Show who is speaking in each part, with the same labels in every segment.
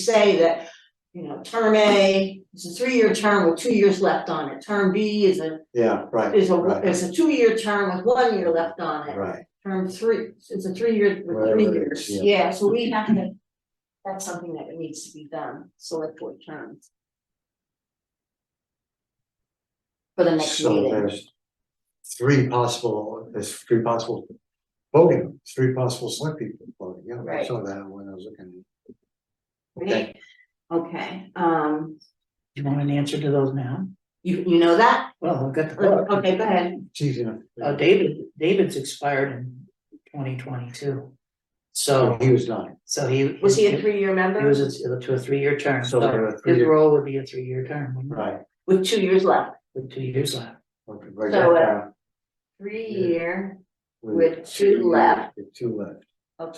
Speaker 1: say that, you know, term A is a three-year term with two years left on it. Term B is a,
Speaker 2: Yeah, right,
Speaker 1: is a,
Speaker 2: Right.
Speaker 1: is a two-year term with one year left on it.
Speaker 2: right.
Speaker 1: Term three, it's a three-year with
Speaker 2: Whatever
Speaker 1: three
Speaker 2: it
Speaker 1: years.
Speaker 2: is, yeah.
Speaker 1: Yeah, so we have to, that's something that needs to be done, select board terms. For the next
Speaker 2: So
Speaker 1: meeting.
Speaker 2: there's three possible, there's three possible voting, three possible select people voting, yeah, I
Speaker 1: Right.
Speaker 2: saw that when I was looking.
Speaker 1: Right? Okay, um,
Speaker 3: Do you want an answer to those now?
Speaker 1: you, you know that?
Speaker 3: Well, I've got the book.
Speaker 1: Okay, go ahead.
Speaker 2: It's easy enough.
Speaker 3: Uh, David, David's expired in twenty twenty-two.
Speaker 2: So
Speaker 3: So,
Speaker 2: Oh, he was not,
Speaker 3: so he.
Speaker 1: Was he a three-year member?
Speaker 3: He was a- to a three-year term,
Speaker 2: So there
Speaker 3: so
Speaker 2: are
Speaker 3: his
Speaker 2: three-year-
Speaker 3: role would be a three-year term, wouldn't it?
Speaker 2: right,
Speaker 1: With two years left.
Speaker 3: with two years left.
Speaker 2: okay, right
Speaker 1: So, uh,
Speaker 2: now.
Speaker 1: Three-year. with two
Speaker 2: years,
Speaker 1: left.
Speaker 2: with Two left,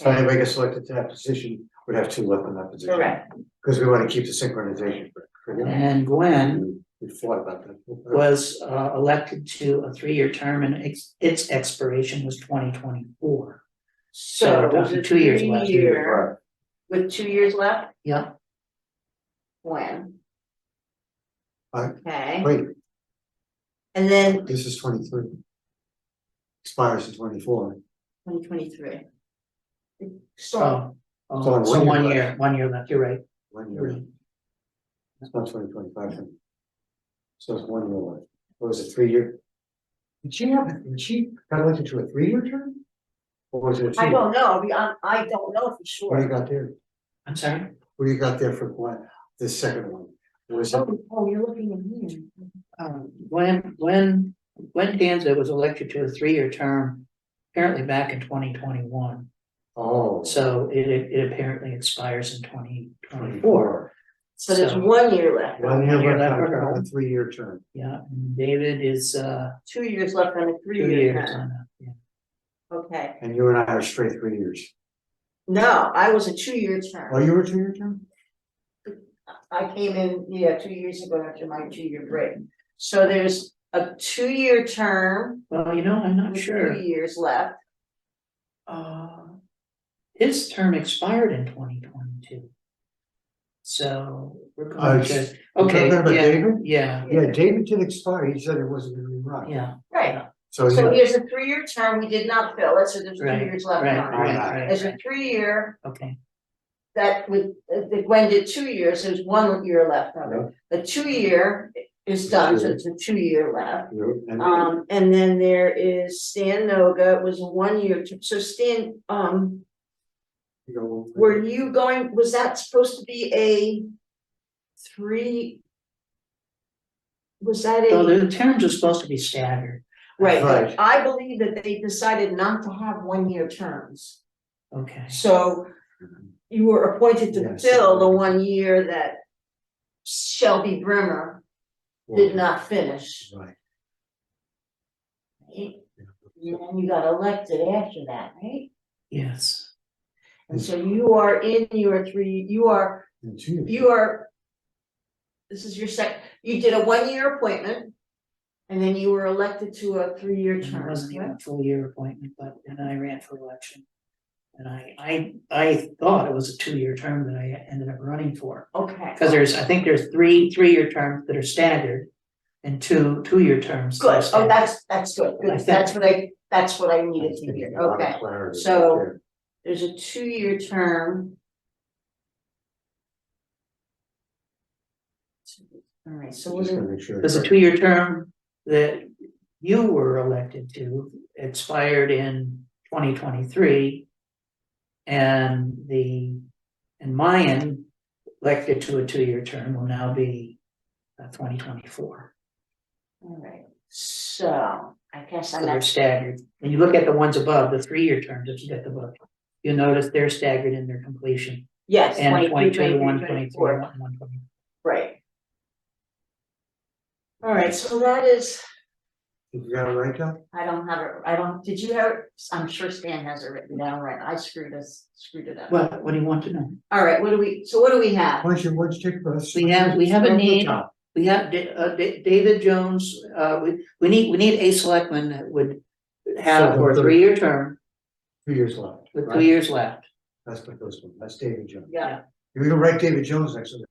Speaker 2: so
Speaker 1: Okay,
Speaker 2: anybody gets selected to that position would have two left in that position.
Speaker 1: correct,
Speaker 2: Because we want to keep the synchronization, for- for
Speaker 3: And
Speaker 2: him.
Speaker 3: then Gwen
Speaker 2: we we fought about that.
Speaker 3: was uh elected to a three-year term and its its expiration was twenty twenty-four.
Speaker 1: so it was a
Speaker 3: two years left.
Speaker 1: three-year
Speaker 2: Right,
Speaker 1: with two years left,
Speaker 3: Yep,
Speaker 1: when?
Speaker 2: Aye.
Speaker 1: Okay,
Speaker 2: wait,
Speaker 1: and then
Speaker 2: this is twenty-three. Expires in twenty-four.
Speaker 1: twenty twenty-three. So,
Speaker 3: so
Speaker 2: So
Speaker 3: uh,
Speaker 2: one
Speaker 3: so
Speaker 2: year
Speaker 3: one
Speaker 2: left.
Speaker 3: year, one year left, you're right.
Speaker 2: One year, it's not twenty twenty-five. then. So it's one year left, What was it three year? Did she have, did she got elected to a three-year term? Or was it a two?
Speaker 1: I don't know, we- I, I don't know for
Speaker 2: What do
Speaker 1: sure,
Speaker 2: you got there,
Speaker 3: I'm sorry,
Speaker 2: what do you got there for one, the second one? Was it,
Speaker 1: oh, oh, you're looking at me.
Speaker 3: um Gwen, Gwen, Gwen Danza was elected to a three-year term apparently back in twenty twenty-one.
Speaker 2: oh.
Speaker 3: So it, it apparently expires in twenty twenty-four.
Speaker 2: 24.
Speaker 1: So there's
Speaker 3: So-
Speaker 1: one year left,
Speaker 2: One
Speaker 3: One
Speaker 2: year
Speaker 3: year
Speaker 2: left
Speaker 3: left for
Speaker 2: on
Speaker 3: her.
Speaker 2: a three-year term,
Speaker 3: Yeah, and David is, uh,
Speaker 1: two years left on a
Speaker 3: two
Speaker 1: three-year
Speaker 3: years
Speaker 1: term,
Speaker 3: on that. yeah.
Speaker 1: okay,
Speaker 2: and you and I are straight three years,
Speaker 1: no, I was a two-year
Speaker 2: oh,
Speaker 1: term.
Speaker 2: you were a two-year term?
Speaker 1: I came in, yeah, two years ago after my two-year break, so there's a two-year term
Speaker 3: Well, you know, I'm not
Speaker 1: with
Speaker 3: sure.
Speaker 1: two years left.
Speaker 3: Uh, his term expired in twenty twenty-two. So we're
Speaker 2: Uh,
Speaker 3: going to,
Speaker 2: you talking about
Speaker 3: okay,
Speaker 2: David?
Speaker 3: yeah,
Speaker 2: Yeah, David did expire, he said it wasn't gonna be
Speaker 3: yeah,
Speaker 2: right,
Speaker 3: yeah,
Speaker 1: Right,
Speaker 2: so.
Speaker 1: so
Speaker 2: yeah.
Speaker 1: here's a three-year term, we did not fill it, so there's two
Speaker 3: Right,
Speaker 1: years
Speaker 3: right,
Speaker 1: left
Speaker 3: right,
Speaker 1: on it.
Speaker 3: right,
Speaker 1: There's a
Speaker 3: right,
Speaker 1: three-year
Speaker 3: okay,
Speaker 1: that with, uh, that Gwen did two years, there's one year left on it. The two-year is done, so it's a two-year left.
Speaker 2: You- and-
Speaker 1: Um, and then there is Stan Noga, it was a one-year term, so Stan, um,
Speaker 2: you go-
Speaker 1: were you going, was that supposed to be a three? Was that a?
Speaker 3: so the terms are supposed to be staggered,
Speaker 1: Right, but
Speaker 2: Right.
Speaker 1: I believe that they decided not to have one-year terms,
Speaker 3: okay,
Speaker 1: so you were appointed to
Speaker 2: Yes.
Speaker 1: fill the one year that Shelby Brimmer did not finish.
Speaker 2: Right.
Speaker 1: And
Speaker 2: yeah.
Speaker 1: you got elected after that, right?
Speaker 3: yes.
Speaker 1: And so you are in your three, you are,
Speaker 2: And two years.
Speaker 1: you are, this is your sec, you did a one-year appointment, and then you were elected to a three-year
Speaker 3: It
Speaker 1: term,
Speaker 3: wasn't even
Speaker 1: right?
Speaker 3: a full year appointment, but and I ran for election. And I I I thought it was a two-year term that I ended up running for,
Speaker 1: Okay.
Speaker 3: because there's, I think there's three three-year terms that are staggered. And two two-year terms. that are
Speaker 1: Good, oh,
Speaker 3: staggered.
Speaker 1: that's, that's good,
Speaker 3: I
Speaker 1: good,
Speaker 3: think-
Speaker 1: that's what I, that's what I needed
Speaker 2: That's
Speaker 1: to
Speaker 2: gonna be
Speaker 1: hear,
Speaker 2: a lot of
Speaker 1: okay.
Speaker 2: clarity right
Speaker 1: So-
Speaker 2: there.
Speaker 1: There's a two-year term. Alright, so
Speaker 2: Just
Speaker 1: we're,
Speaker 2: gotta make sure.
Speaker 3: There's a
Speaker 2: it's
Speaker 3: two-year term that you were elected to expired in twenty twenty-three. And the, and Mayan elected to a two-year term will now be uh, twenty twenty-four.
Speaker 1: alright, so I guess
Speaker 3: So
Speaker 1: I'm
Speaker 3: they're
Speaker 1: not,
Speaker 3: staggered. When you look at the ones above, the three-year terms, if you get the book, you'll notice they're staggered in their completion.
Speaker 1: yes,
Speaker 3: And
Speaker 1: 23,
Speaker 3: 22,
Speaker 1: 23,
Speaker 3: 1, 23,
Speaker 1: 24,
Speaker 3: one- one 20.
Speaker 1: right. Alright, so that is,
Speaker 2: right. You got it right, Doc?
Speaker 1: I don't have it, I don't, did you have, it? I'm sure Stan has it written down, right, I screwed us, screwed it up.
Speaker 3: What, what do you want to know?
Speaker 1: Alright, what do we, so what do we have?
Speaker 2: Why don't you, why don't you take us?
Speaker 3: We have- we have a
Speaker 2: Start from the
Speaker 3: need.
Speaker 2: top.
Speaker 3: We have Da- uh, Da- David Jones, uh, we, we need, we need a selectman that would have
Speaker 2: Selectman
Speaker 3: for a
Speaker 2: third.
Speaker 3: three-year term
Speaker 2: Two years left.
Speaker 3: with two
Speaker 2: right?
Speaker 3: years left.
Speaker 2: That's the first one, that's David Jones.
Speaker 1: Yeah,
Speaker 2: We can write David Jones next to